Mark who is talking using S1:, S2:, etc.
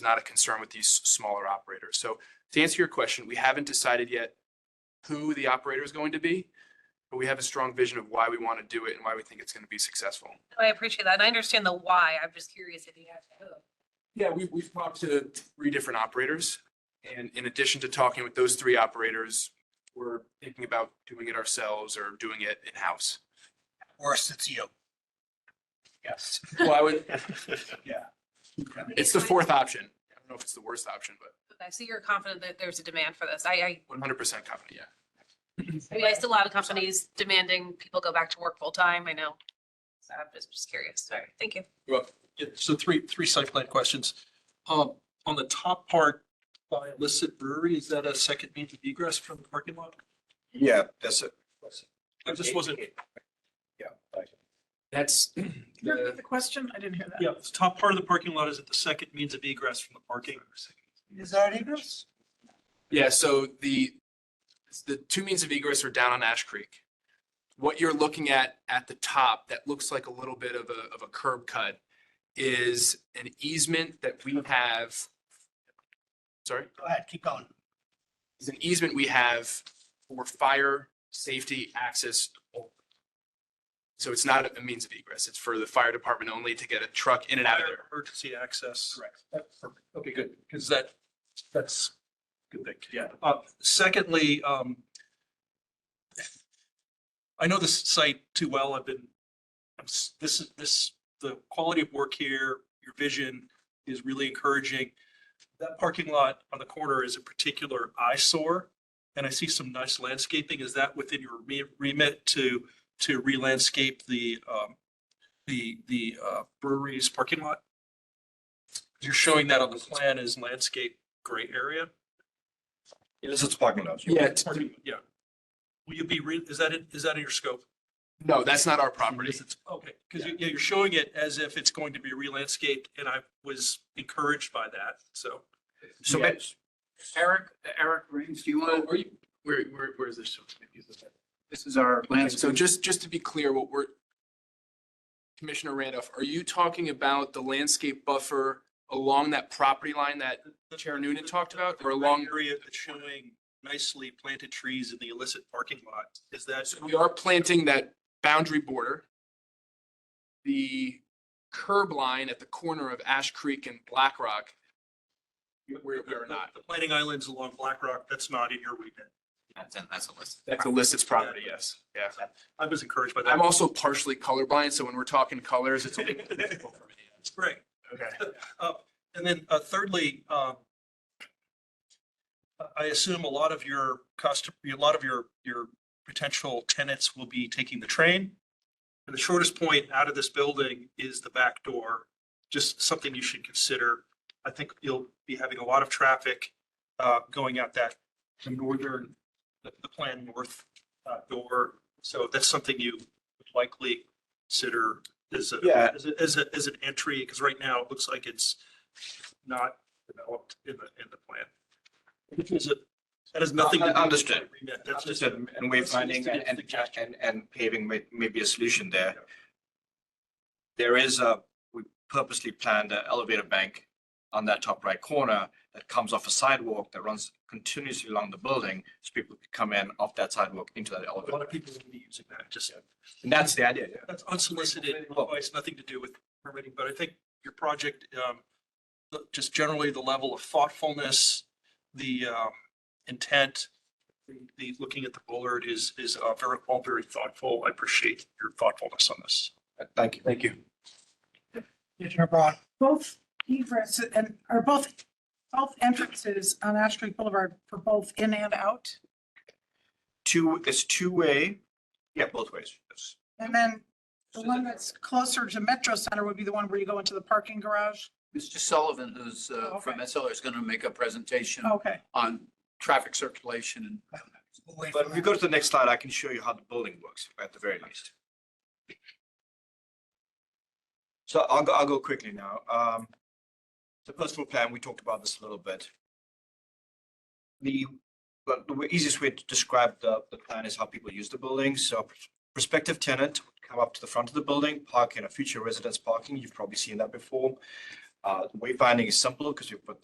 S1: not a concern with these smaller operators. So to answer your question, we haven't decided yet who the operator is going to be, but we have a strong vision of why we want to do it and why we think it's going to be successful.
S2: I appreciate that. And I understand the why. I'm just curious if you have to.
S1: Yeah, we, we've talked to three different operators. And in addition to talking with those three operators, we're thinking about doing it ourselves or doing it in-house.
S3: Or it's you.
S1: Yes. Well, I would, yeah. It's the fourth option. I don't know if it's the worst option, but
S2: Okay, so you're confident that there's a demand for this. I, I,
S1: one hundred percent confident, yeah.
S2: I mean, I see a lot of companies demanding people go back to work full time. I know. So I'm just, just curious. Sorry. Thank you.
S4: Yeah, so three, three site plan questions. Um, on the top part, by illicit brewery, is that a second means of egress from the parking lot?
S5: Yeah, that's it.
S4: I just wasn't,
S5: Yeah.
S1: That's
S6: Can you
S1: the
S6: repeat the question? I didn't hear that.
S4: yeah, the top part of the parking lot is at the second means of egress from the parking.
S3: Is that egress?
S1: Yeah, so the, the two means of egress are down on Ash Creek. What you're looking at at the top that looks like a little bit of a, of a curb cut is an easement that we have. Sorry,
S3: Go ahead, keep going.
S1: is an easement we have for fire, safety, access. only. So it's not a means of egress. It's for the fire department only to get a truck in and out of there.
S4: Emergency access.
S1: Correct.
S4: That's perfect. Okay, good, because that, that's good thing, yeah. Uh, secondly, um, I know this site too well. I've been, I'm s- this is, this, the quality of work here, your vision is really encouraging. That parking lot on the corner is a particular eyesore, and I see some nice landscaping. Is that within your re- remit to, to re-landscape the, um, the, the uh, brewery's parking lot? You're showing that on the plan as landscape gray area?
S5: Yes, it's parking lot.
S1: Yeah,
S4: It's parking- Yeah. Will you be, re- is that in is that in your scope?
S1: No, that's not our property.
S4: Because it's- Okay, because you, yeah, you're showing it as if it's going to be re-landscaped, and I was encouraged by that, so.
S7: So
S1: Yeah.
S7: but Eric, Eric Reeves, do you want,
S1: Are you, where, where, where is this?
S7: this is our
S1: Okay, So
S7: landscape.
S1: just, just to be clear, what we're, Commissioner Randolph, are you talking about the landscape buffer along that property line that, Chair Noonan talked about,
S4: The
S1: or
S4: gray
S1: along-
S4: Area that's showing nicely planted trees in the illicit parking lot, is that,
S1: so we are planting that boundary border? The curb line at the corner of Ash Creek and Black Rock? Where, where not?
S4: the planting islands along Black Rock, that's not in your remit.
S7: That's in- that's a list.
S1: That's illicit property, yes, yeah.
S4: I was encouraged by that.
S1: I'm also partially colorblind, so when we're talking colors, it's. a little difficult for me.
S4: It's great.
S1: Okay.
S4: And then uh, thirdly, um, I- I assume a lot of your customer, a lot of your, your potential tenants will be taking the train. And the shortest point out of this building is the back door, just something you should consider. I think you'll be having a lot of traffic uh, going out that northern, the the plan north uh, door. So that's something you would likely consider as a,
S5: Yeah.
S4: as a- as a, as an entry, because right now it looks like it's not developed in the, in the plan. Which is a, that has nothing. to do with the
S5: Understood.
S4: remit. That's just.
S5: Understood. And we're finding and, and- and, and paving may, may be a solution there. There is a, we purposely planned an elevator bank on that top right corner that comes off a sidewalk that runs continuously along the building. So people can come in off that sidewalk into that
S4: A lot
S5: elevator.
S4: of people will be using that, just,
S5: And that's the idea. yeah.
S4: that's unsolicited advice, nothing to do with permitting, but I think your project, um, the- just generally the level of thoughtfulness, the, um, intent, the- the, looking at the bullard is, is uh, very, all very thoughtful. I appreciate your thoughtfulness on this.
S5: Thank you.
S1: Thank you.
S3: Commissioner Braun.
S6: Both egress and, or both, both entrances on Ash Street Boulevard for both in and out.
S5: Two, it's two-way. Yeah, both ways. Yes.
S6: And then the one that's closer to Metro Center would be the one where you go into the parking garage.
S7: Mr. Sullivan, who's uh,
S6: Oh,
S7: from
S6: okay.
S7: SLR, is going to make a presentation
S6: Okay.
S7: on traffic circulation and
S3: Away
S5: But
S3: from
S5: if you
S3: that.
S5: go to the next slide, I can show you how the building works at the very least. So I'll go, I'll go quickly now. Um, the first floor plan, we talked about this a little bit. The, but the easiest way to describe the, the plan is how people use the building. So prospective tenant would come up to the front of the building, park in a future residence parking. You've probably seen that before. Uh, wayfinding is simple because we put